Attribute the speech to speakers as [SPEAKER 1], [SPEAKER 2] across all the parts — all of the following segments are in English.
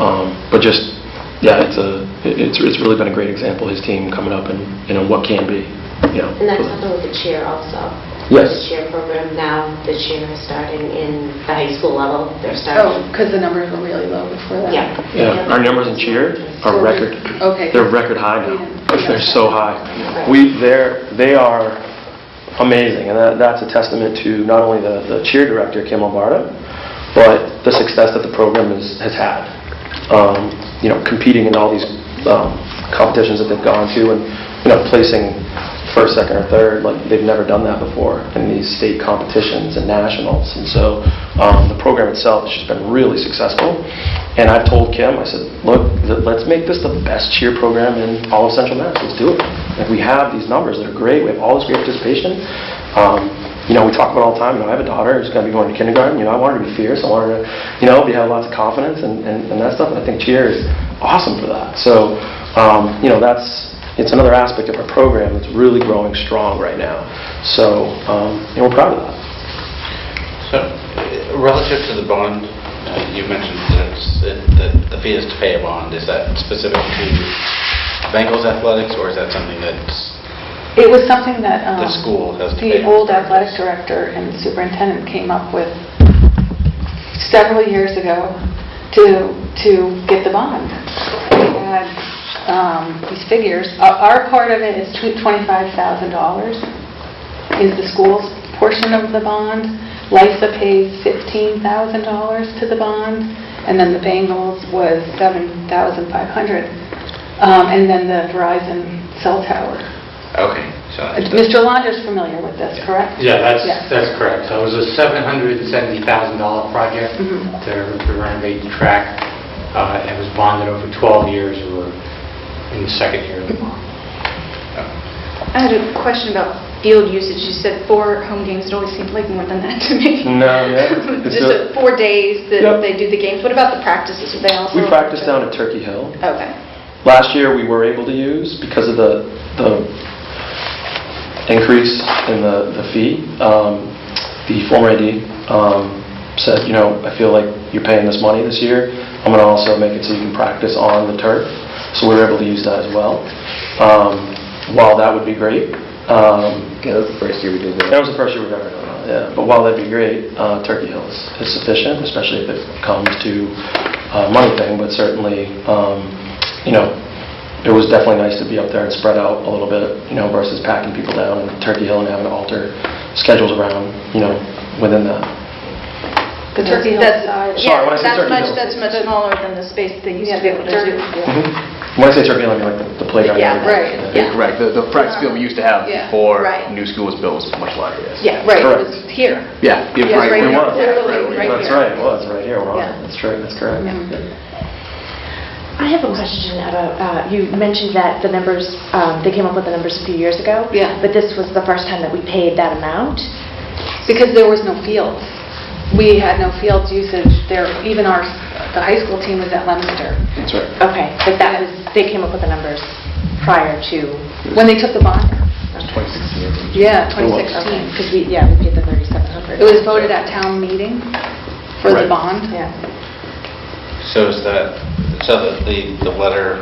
[SPEAKER 1] Um, But just, yeah, it's a, it- it's, it's really been a great example, his team coming up and, you know, what can be, you know.
[SPEAKER 2] And that's happened with the cheer also.
[SPEAKER 1] Yes.
[SPEAKER 2] The cheer program now, the cheer is starting in the high school level. They're
[SPEAKER 3] Oh,
[SPEAKER 2] starting.
[SPEAKER 3] because the numbers were really low before that.
[SPEAKER 2] Yeah.
[SPEAKER 1] Yeah, our numbers in cheer are record.
[SPEAKER 3] Okay.
[SPEAKER 1] They're record high now.
[SPEAKER 3] Yeah.
[SPEAKER 1] They're so high. We, they're, they are amazing, and that, that's a testament to not only the, the cheer director, Kim Albarda, but the success that the program has, has had. Um, You know, competing in all these um, competitions that they've gone to, and, you know, placing first, second, or third, like, they've never done that before in these state competitions and nationals. And so, um, the program itself has just been really successful. And I've told Kim, I said, look, th- let's make this the best cheer program in all of Central Mass. Let's do it. Like, we have these numbers that are great, we have all this great participation. Um, You know, we talk about it all the time, you know, I have a daughter who's gonna be going to kindergarten, you know, I want her to be fierce, I want her to, you know, be, have lots of confidence and, and and that stuff. And I think cheer is awesome for that. So, um, you know, that's, it's another aspect of our program that's really growing strong right now. So, um, you know, we're proud of that.
[SPEAKER 4] So, uh, relative to the bond, uh, you mentioned that it's- that- that the fee is to pay a bond. Is that specific to Bengals athletics, or is that something that's,
[SPEAKER 3] It was something that... um,
[SPEAKER 4] The school has to pay
[SPEAKER 3] The
[SPEAKER 4] for
[SPEAKER 3] old
[SPEAKER 4] it.
[SPEAKER 3] athletic director and superintendent came up with several years ago to, to get the bond. We had um, these figures. Our- Our part of it is tw- $25,000 is the school's portion of the bond. LISA pays $15,000 to the bond, and then the Bengals was $7,500, um, and then the Verizon cell tower.
[SPEAKER 4] okay, so...
[SPEAKER 3] Uh, Mr. Londra's familiar with this, correct?
[SPEAKER 5] Yeah, that's,
[SPEAKER 3] Yeah.
[SPEAKER 5] that's correct. So it was a $770,000 project
[SPEAKER 3] Mhm.
[SPEAKER 5] to to renovate the track. uh, and It was bonded over 12 years, we were in the second year of the bond.
[SPEAKER 6] I had a question about field usage. You said four home games, it always seemed like more than that to me.
[SPEAKER 1] No, yeah. It's
[SPEAKER 6] Just
[SPEAKER 1] a-
[SPEAKER 6] uh, four days
[SPEAKER 1] Yep.
[SPEAKER 6] that they do the games. What about the practices? Are they also?
[SPEAKER 1] We practice down at Turkey Hill.
[SPEAKER 6] Okay.
[SPEAKER 1] Last year, we were able to use because of the, the increase in the, the fee. Um, The former AD um, said, you know, I feel like you're paying this money this year. I'm gonna also make it so you can practice on the turf. So we were able to use that as well. Um, While that would be great, um,
[SPEAKER 7] Yeah, that's the first year we did
[SPEAKER 1] That
[SPEAKER 7] that.
[SPEAKER 1] was the first year we've ever done that, yeah. But while that'd be great, uh, Turkey Hill is is sufficient, especially if it comes to uh, money thing, but certainly, um, you know, it was definitely nice to be up there and spread out a little bit, you know, versus packing people down in Turkey Hill and having to alter schedules around, you know, within that.
[SPEAKER 3] The Turkey Hill
[SPEAKER 6] That's-
[SPEAKER 3] side.
[SPEAKER 1] Sorry,
[SPEAKER 6] Yeah,
[SPEAKER 1] when I said
[SPEAKER 6] that's
[SPEAKER 1] Turkey
[SPEAKER 6] much,
[SPEAKER 1] Hill.
[SPEAKER 6] that's much smaller than the space that they used to be able to do.
[SPEAKER 1] Mhm. When I say Turkey Hill, I mean like the- the playground.
[SPEAKER 6] Yeah,
[SPEAKER 1] area.
[SPEAKER 3] right,
[SPEAKER 1] Yeah.
[SPEAKER 7] Correct, the, the practice field we used to have
[SPEAKER 3] Yeah,
[SPEAKER 7] before
[SPEAKER 6] right.
[SPEAKER 7] new school was built was much larger, yes.
[SPEAKER 6] Yeah, right, it
[SPEAKER 1] Correct.
[SPEAKER 6] was here.
[SPEAKER 7] Yeah, yeah,
[SPEAKER 6] Yeah,
[SPEAKER 7] right.
[SPEAKER 6] right
[SPEAKER 7] we
[SPEAKER 6] here.
[SPEAKER 7] were.
[SPEAKER 6] Literally,
[SPEAKER 7] Yeah,
[SPEAKER 6] right
[SPEAKER 1] That's
[SPEAKER 6] here.
[SPEAKER 1] right, it was, right here, we're on
[SPEAKER 6] Yeah.
[SPEAKER 1] it. That's true, that's correct.
[SPEAKER 8] I have a question about, uh, you mentioned that the numbers, um, they came up with the numbers a few years ago.
[SPEAKER 3] Yeah.
[SPEAKER 8] But this was the first time that we paid that amount.
[SPEAKER 3] Because there was no fields. We had no fields usage there. Even our, the high school team was at Leominster.
[SPEAKER 7] That's right.
[SPEAKER 8] Okay, but that was, they came up with the numbers prior to...
[SPEAKER 3] When they took the bond,
[SPEAKER 8] Okay.
[SPEAKER 7] 2016.
[SPEAKER 3] yeah,
[SPEAKER 1] was.
[SPEAKER 3] 2016.
[SPEAKER 8] Because we, yeah, we paid the 3,700.
[SPEAKER 3] It was voted at town meeting for the
[SPEAKER 7] Right.
[SPEAKER 3] bond.
[SPEAKER 8] Yeah.
[SPEAKER 4] So is that, so that the, the letter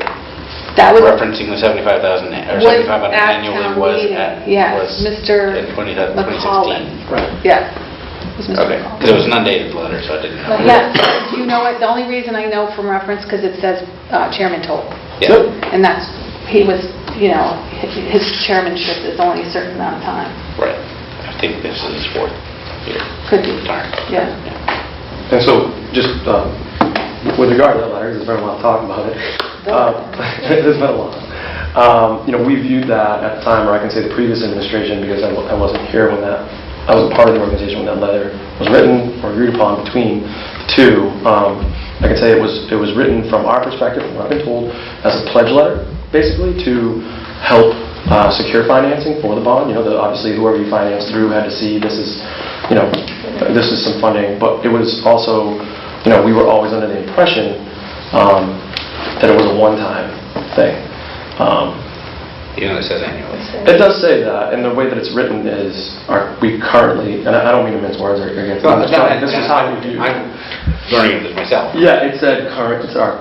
[SPEAKER 3] That was,
[SPEAKER 4] referencing the 75,000, a- or
[SPEAKER 3] Was
[SPEAKER 4] 7,500
[SPEAKER 3] at
[SPEAKER 4] annually
[SPEAKER 3] town
[SPEAKER 4] was
[SPEAKER 3] meeting.
[SPEAKER 4] at,
[SPEAKER 3] Yes,
[SPEAKER 4] was
[SPEAKER 3] Mr.
[SPEAKER 4] in 20 that-
[SPEAKER 3] McCollum.
[SPEAKER 4] 2016?
[SPEAKER 1] Right.
[SPEAKER 3] yeah. It was Mr.
[SPEAKER 4] Okay,
[SPEAKER 3] Paul.
[SPEAKER 4] because it was an undated letter, so I didn't know.
[SPEAKER 3] Yes, you know what, the only reason I know from reference, because it says uh, Chairman Toll,
[SPEAKER 4] Yeah.
[SPEAKER 3] and that's, he was, you know, hi- his chairmanship is only a certain amount of time,
[SPEAKER 4] Right. I think this is his fourth year.
[SPEAKER 3] could be,
[SPEAKER 4] Darn.
[SPEAKER 3] yeah.
[SPEAKER 1] And so, just um, with regard to that letter, 'cause there's been a lot of talk about it. Uh, There's been a lot. Um, You know, we viewed that at the time, or I can say the previous administration, because I wa- I wasn't here when that, I wasn't part of the organization when that letter was written or agreed upon between the two. Um, I can say it was, it was written from our perspective, from what I've been told, as a pledge letter, basically, to help uh, secure financing for the bond. You know, the- obviously, whoever you financed through had to see this is, you know, this is some funding, but it was also, you know, we were always under the impression um, that it was a one-time thing. Um,
[SPEAKER 4] Even though it says annually.
[SPEAKER 1] It does say that, and the way that it's written is, are we currently, and I I don't mean to mince words or or get, this is how we do.
[SPEAKER 4] I'm learning this myself.
[SPEAKER 1] Yeah, it said current, it's our